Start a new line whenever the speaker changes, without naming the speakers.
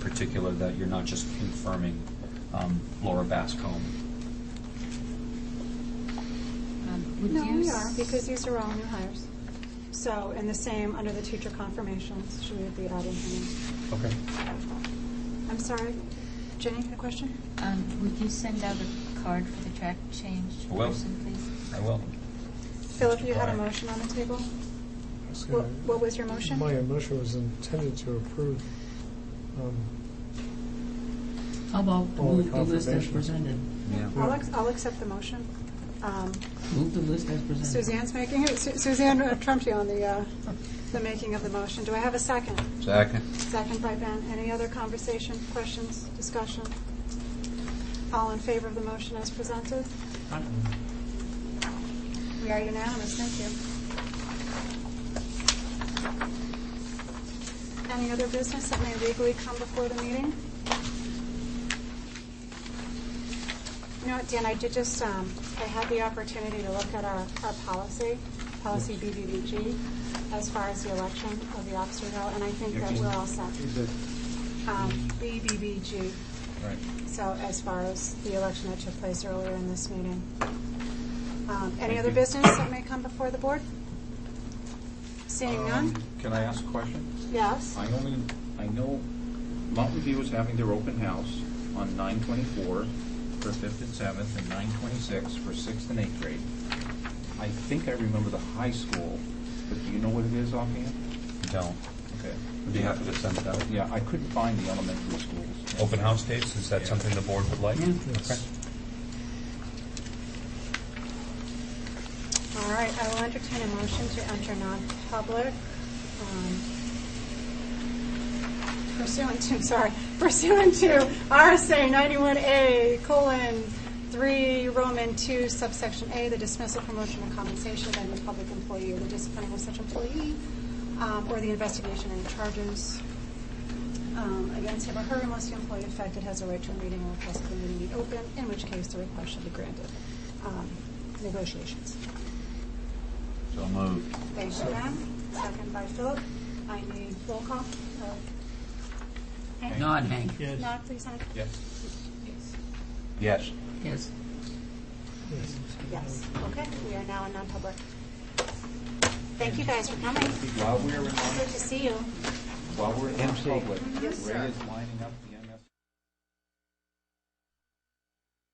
particular that you're not just confirming um, Laura Bascom.
Um, would
No,
you
we
s-
are, because these are all new hires. So, and the same under the teacher confirmations, should we be adding him
Okay.
in? I'm sorry, Jenny, a question?
Um, would you send out a card for the track change
I will.
person, please?
I will.
Philip, you had a
Aye.
motion on the table?
Yes,
What,
and I-
what was your motion?
My motion was intended to approve um,
How about
All the
move the list as
confirmations.
presented?
Yeah.
I'll, ex- I'll accept the motion. Um,
Move the list as presented.
Suzanne's making, it. Su- Suzanne trumped you on the, uh, the making of the motion. Do I have a second?
Second.
Second by Ben. Any other conversation, questions, discussion? All in favor of the motion as presented? We are unanimous, thank you. Any other business that may legally come before the meeting? You know what, Dan, I did just, um, I had the opportunity to look at our, our policy, policy BBBG, as far as the election of the officer go, and I think that we're all set. Um, BBBG,
Right.
so as far as the election that took place earlier in this meeting. Um, Any
Thank
other
you.
business that may come before the board? Seeing none?
Um, Can I ask a question?
Yes.
I only, I know Mountain View is having their open house on nine twenty-four for fifth and seventh, and nine twenty-six for sixth and eighth grade. I think I remember the high school, but do you know what it is offhand?
Don't.
Okay.
Would be happy to send it out.
Yeah, I couldn't find the elementary schools.
Open house dates, is that
Yeah.
something the board would like?
Yeah.
Okay.
All right, I will entertain a motion to enter non-public um, pursuant to, sorry, pursuant to RSA 91A colon 3 Roman 2 subsection A, the dismissal, promotion, or compensation of any public employee or the discipline of such employee, um, or the investigation and charges um, against him or her unless the employee affected has a right to a meeting or request that the meeting be open, in which case the request shall be granted. Um, Negotiations.
So moved.
Thank you, Ann. Second by Philip. I need roll call. Uh, Hank?
Nod, Hank.
Nod, please, Hank.
Yes.
Yes.
Yes.
Yes.
yes.
Yes, okay, we are now in non-public. Thank you guys for coming.
While we're in,
Good to see you.
while we're in public, Ray is lying